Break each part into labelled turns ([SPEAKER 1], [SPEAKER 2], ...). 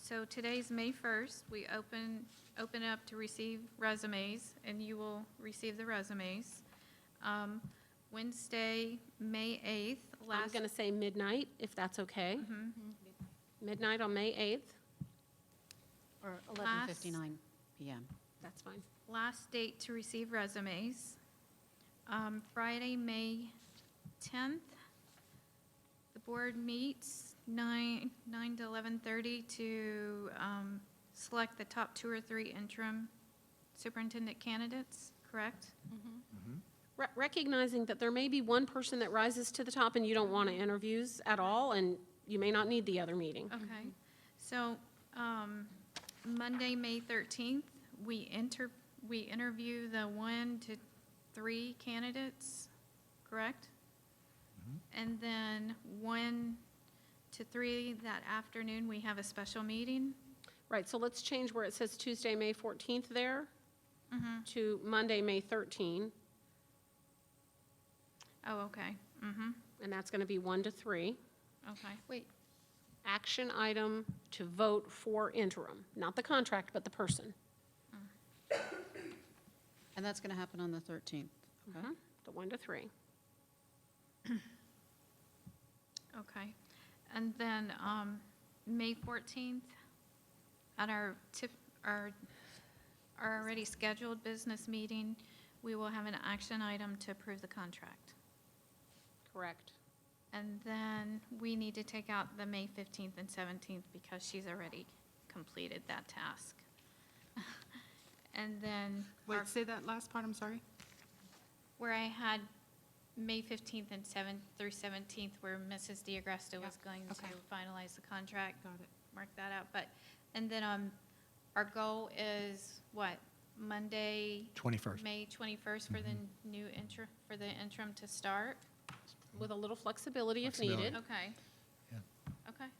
[SPEAKER 1] So today's May 1st. We open, open up to receive resumes, and you will receive the resumes. Um, Wednesday, May 8th,
[SPEAKER 2] I'm
[SPEAKER 1] last.
[SPEAKER 2] going to say midnight, if that's okay.
[SPEAKER 1] Mhm.
[SPEAKER 2] Midnight on May 8th,
[SPEAKER 3] Or
[SPEAKER 1] Class.
[SPEAKER 3] 11:59 PM.
[SPEAKER 2] that's fine.
[SPEAKER 1] Last date to receive resumes, um, Friday, May 10th. The board meets 9, 9 to 11:30 to um, select the top two or three interim superintendent candidates, correct?
[SPEAKER 2] Re- Recognizing that there may be one person that rises to the top and you don't want to interviews at all, and you may not need the other meeting.
[SPEAKER 1] Okay. So um, Monday, May 13th, we enter, we interview the one to three candidates, correct? And then one to three that afternoon, we have a special meeting.
[SPEAKER 2] Right, so let's change where it says Tuesday, May 14th there to Monday, May 13,
[SPEAKER 1] Oh, okay. Mm-hmm.
[SPEAKER 2] and that's going to be 1 to 3.
[SPEAKER 1] Okay.
[SPEAKER 3] Wait,
[SPEAKER 2] Action item to vote for interim, not the contract, but the person.
[SPEAKER 3] and that's going to happen on the 13th.
[SPEAKER 2] Mm-hmm.
[SPEAKER 3] Okay.
[SPEAKER 2] The 1 to 3.
[SPEAKER 1] Okay. And then, um, May 14th, at our tip, our, our already scheduled business meeting, we will have an action item to approve the contract.
[SPEAKER 2] Correct.
[SPEAKER 1] And then we need to take out the May 15th and 17th because she's already completed that task. And then, our-
[SPEAKER 4] Wait, say that last part, I'm sorry.
[SPEAKER 1] where I had May 15th and 7th through 17th, where Mrs. DiAgresta was going
[SPEAKER 4] okay.
[SPEAKER 1] to finalize the contract.
[SPEAKER 4] Got it.
[SPEAKER 1] mark that out, but, and then, um, our goal is what, Monday,
[SPEAKER 5] 21st.
[SPEAKER 1] May twenty-first for the new interim, for the interim to start?
[SPEAKER 2] With a little flexibility if
[SPEAKER 5] Flexibility.
[SPEAKER 2] needed.
[SPEAKER 1] Okay.
[SPEAKER 5] Yeah.
[SPEAKER 1] Okay,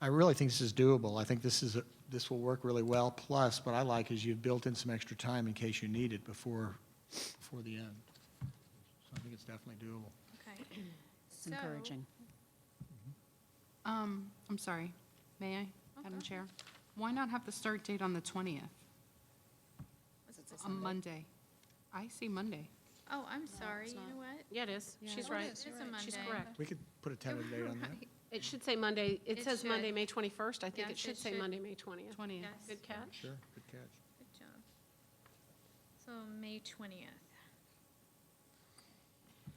[SPEAKER 5] I really think this is doable. I think this is, a- this will work really well. Plus, what I like is you've built in some extra time in case you need it before, before the end. So I think it's definitely doable.
[SPEAKER 1] okay.
[SPEAKER 3] It's encouraging.
[SPEAKER 4] Um, I'm sorry. May I, Madam
[SPEAKER 1] Okay.
[SPEAKER 4] Chair? Why not have the start date on the 20th, on Monday? I see Monday.
[SPEAKER 1] Oh, I'm sorry, you
[SPEAKER 3] not.
[SPEAKER 1] know what?
[SPEAKER 2] Yeah, it is.
[SPEAKER 4] Yeah.
[SPEAKER 2] She's
[SPEAKER 4] Oh, it
[SPEAKER 2] right.
[SPEAKER 1] It is a Monday.
[SPEAKER 2] She's correct.
[SPEAKER 5] We could put a tentative date on that.
[SPEAKER 2] It should say Monday,
[SPEAKER 1] It
[SPEAKER 2] it says
[SPEAKER 1] should.
[SPEAKER 2] Monday, May 21st. I think
[SPEAKER 1] Yes,
[SPEAKER 2] it should
[SPEAKER 1] it
[SPEAKER 2] say
[SPEAKER 1] should.
[SPEAKER 2] Monday, May 20th.
[SPEAKER 4] 20th.
[SPEAKER 1] Yes, good
[SPEAKER 2] Good catch.
[SPEAKER 5] Sure, good catch.
[SPEAKER 1] job. So, May twentieth.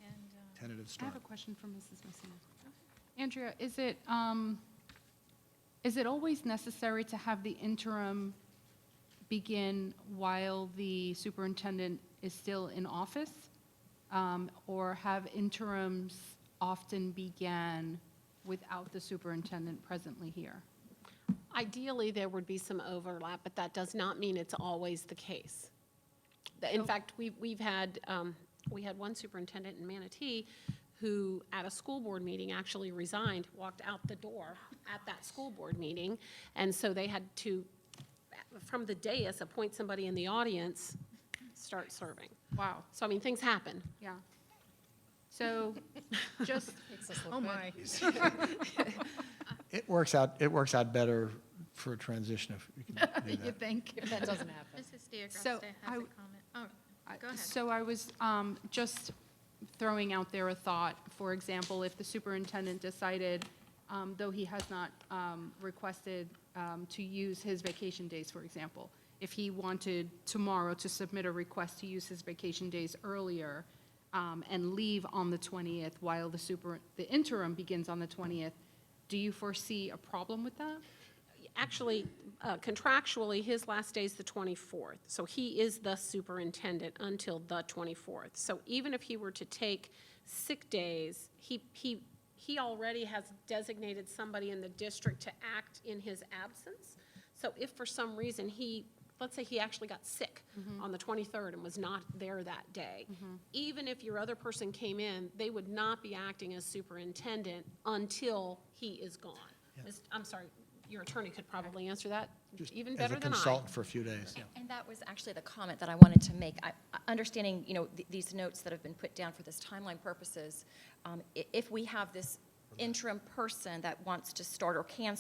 [SPEAKER 1] And, uh,
[SPEAKER 5] Tentative
[SPEAKER 4] I
[SPEAKER 5] start.
[SPEAKER 4] have a question for Mrs. Messina. Andrea, is it, um, is it always necessary to have the interim begin while the superintendent is still in office? Um, Or have interims often began without the superintendent presently here?
[SPEAKER 2] Ideally, there would be some overlap, but that does not mean it's always the case. The- In fact, we- we've had, um, we had one superintendent in Manatee who, at a school board meeting, actually resigned, walked out the door at that school board meeting, and so they had to, from the dais, appoint somebody in the audience, start serving.
[SPEAKER 4] Wow.
[SPEAKER 2] So, I mean, things happen.
[SPEAKER 4] Yeah. So just, oh my.
[SPEAKER 5] It works out, it works out better for a transition if you can do
[SPEAKER 4] You
[SPEAKER 5] that.
[SPEAKER 4] think?
[SPEAKER 3] That doesn't happen.
[SPEAKER 1] Mrs. DeAgresta
[SPEAKER 4] So, I
[SPEAKER 1] has a
[SPEAKER 4] w-
[SPEAKER 1] comment. Oh,
[SPEAKER 4] I-
[SPEAKER 1] Go ahead.
[SPEAKER 4] So I was um, just throwing out there a thought, for example, if the superintendent decided, um, though he has not um, requested um, to use his vacation days, for example, if he wanted tomorrow to submit a request to use his vacation days earlier um, and leave on the 20th while the super, the interim begins on the 20th, do you foresee a problem with that?
[SPEAKER 2] Actually, uh, contractually, his last day is the 24th, so he is the superintendent until the 24th. So even if he were to take sick days, he, he, he already has designated somebody in the district to act in his absence. So if for some reason he, let's say he actually got sick
[SPEAKER 5] Mm-hmm.
[SPEAKER 2] on the 23rd and was not there that day, even if your other person came in, they would not be acting as superintendent until he is gone. Mis- I'm sorry, your attorney could probably answer that
[SPEAKER 5] Just
[SPEAKER 2] even better
[SPEAKER 5] As a
[SPEAKER 2] than I.
[SPEAKER 5] consultant for a few days, yeah.
[SPEAKER 6] And that was actually the comment that I wanted to make. I- I- Understanding, you know, th- these notes that have been put down for this timeline purposes, um, i- if we have this interim person that wants to start or can